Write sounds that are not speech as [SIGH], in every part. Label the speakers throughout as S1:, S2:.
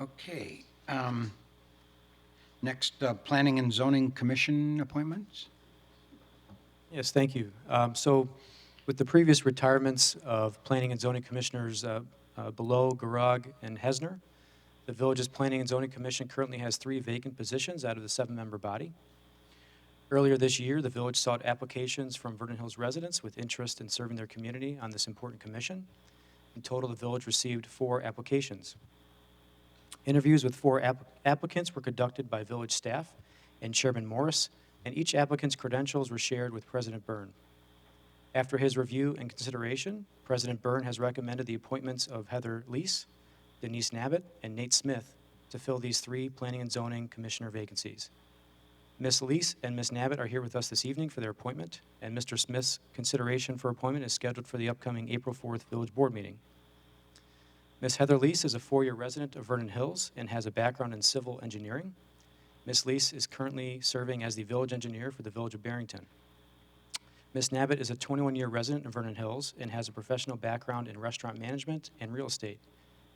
S1: Okay. um, Next, uh, Planning and Zoning Commission appointments?
S2: Yes, thank you. Um, So with the previous retirements of planning and zoning commissioners uh, uh, Below, Garag, and Hesner, the village's Planning and Zoning Commission currently has three vacant positions out of the seven-member body. Earlier this year, the village sought applications from Vernon Hills residents with interest in serving their community on this important commission. In total, the village received four applications. Interviews with four app- applicants were conducted by village staff and Chairman Morris, and each applicant's credentials were shared with President Byrne. After his review and consideration, President Byrne has recommended the appointments of Heather Lees, Denise Nabbitt, and Nate Smith to fill these three Planning and Zoning Commissioner vacancies. Ms. Lees and Ms. Nabbitt are here with us this evening for their appointment, and Mr. Smith's consideration for appointment is scheduled for the upcoming April 4th Village Board meeting. Ms. Heather Lees is a four-year resident of Vernon Hills and has a background in civil engineering. Ms. Lees is currently serving as the village engineer for the Village of Barrington. Ms. Nabbitt is a 21-year resident of Vernon Hills and has a professional background in restaurant management and real estate.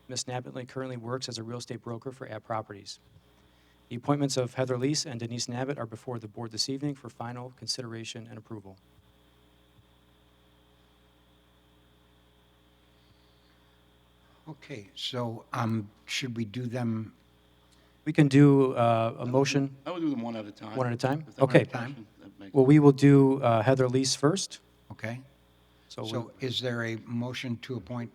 S2: Ms. Nabbitt currently works as a real estate broker for App Properties. The appointments of Heather Lees and Denise Nabbitt are before the board this evening for final consideration and approval.
S1: Okay, so um, should we do them?
S2: We can do uh, a motion.
S3: I would do them one at a time.
S2: One at a time?
S3: If that were
S2: Okay.
S3: a motion, that makes-
S2: Well, we will do uh, Heather Lees first.
S1: Okay,
S2: So we-
S1: so is there a motion to appoint?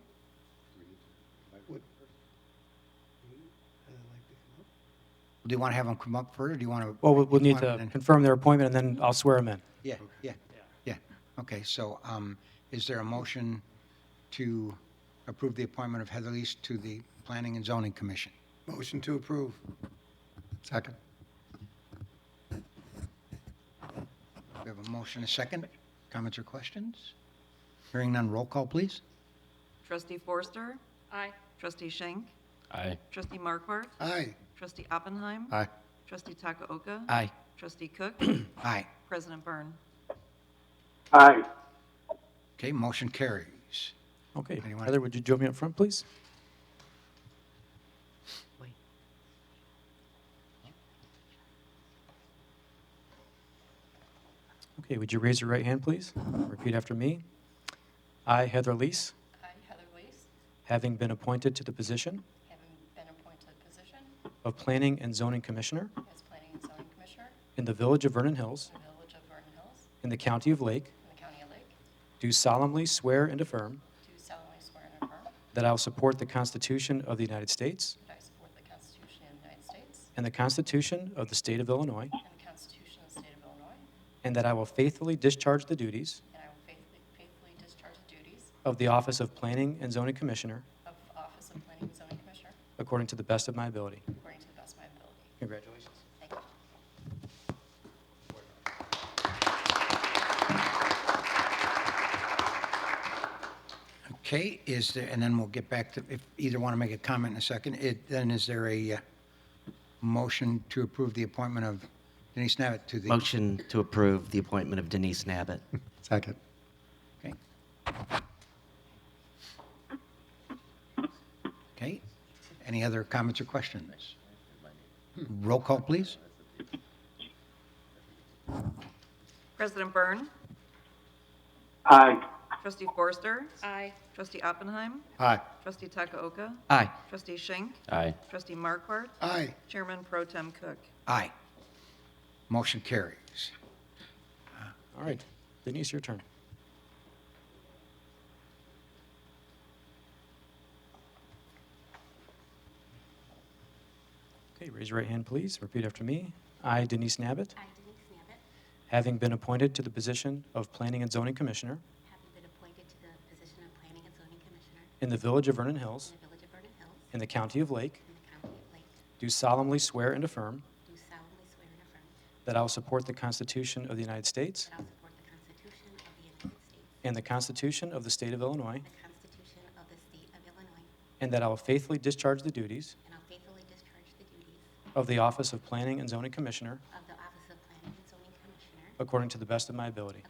S1: Do you want to have them come up first, or do you want to?
S2: Well, we'll- we'll need to confirm their appointment, and then I'll swear them in.
S1: Yeah, yeah, yeah. Okay, so um, is there a motion to approve the appointment of Heather Lees to the Planning and Zoning Commission?
S4: Motion to approve.
S1: Second. We have a motion, a second. Comments or questions? Hearing none, roll call, please.
S5: Trustee Forster? Aye. Trustee Schenk?
S6: Aye.
S5: Trustee Markwart?
S4: Aye.
S5: Trustee Oppenheim?
S1: Aye.
S5: Trustee Takaoka?
S1: Aye.
S5: Trustee Cook? [CLEARS THROAT]
S1: Aye.
S5: President Byrne?
S1: Okay, motion carries.
S2: Okay.
S1: Anyone?
S2: Heather, would you join me up front, please? Okay, would you raise your right hand, please? Repeat after me. I, Heather Lees,
S7: I, Heather Lees,
S2: having been appointed to the position
S7: having been appointed to the position
S2: of Planning and Zoning Commissioner
S7: as Planning and Zoning Commissioner
S2: in the Village of Vernon Hills
S7: for the Village of Vernon Hills
S2: in the County of Lake,
S7: in the County of Lake,
S2: do solemnly swear and affirm
S7: do solemnly swear and affirm
S2: that I will support the Constitution of the United States
S7: that I support the Constitution of the United States
S2: and the Constitution of the State of Illinois,
S7: and the Constitution of the State of Illinois,
S2: and that I will faithfully discharge the duties
S7: and I will faithfully faithfully discharge the duties
S2: of the Office of Planning and Zoning Commissioner
S7: of Office of Planning and Zoning Commissioner
S2: according to the best of my ability.
S7: according to the best of my ability.
S2: Congratulations.
S7: Thank you.
S1: Okay, is there, and then we'll get back to, if either want to make a comment in a second, it, then is there a uh, motion to approve the appointment of Denise Nabbitt to the?
S8: Motion to approve the appointment of Denise Nabbitt.
S4: Second.
S1: Okay. Okay, any other comments or questions? Roll call, please.
S5: President Byrne? Aye. Trustee Forster? Aye. Trustee Oppenheim?
S1: Aye.
S5: Trustee Takaoka?
S1: Aye.
S5: Trustee Schenk?
S6: Aye.
S5: Trustee Markwart?
S4: Aye.
S5: Chairman Pro Tem Cook?
S1: Aye. Motion carries.
S2: All right, Denise, your turn. Okay, raise your right hand, please. Repeat after me. I, Denise Nabbitt,
S9: I, Denise Nabbitt,
S2: having been appointed to the position of Planning and Zoning Commissioner
S9: having been appointed to the position of Planning and Zoning Commissioner
S2: in the Village of Vernon Hills
S9: in the Village of Vernon Hills
S2: in the County of Lake,
S9: in the County of Lake,
S2: do solemnly swear and affirm
S9: do solemnly swear and affirm
S2: that I will support the Constitution of the United States
S9: that I will support the Constitution of the United States,
S2: and the Constitution of the State of Illinois,
S9: the Constitution of the State of Illinois,
S2: and that I will faithfully discharge the duties
S9: and I'll faithfully discharge the duties
S2: of the Office of Planning and Zoning Commissioner
S9: of the Office of Planning and Zoning Commissioner
S2: according to the best of my ability.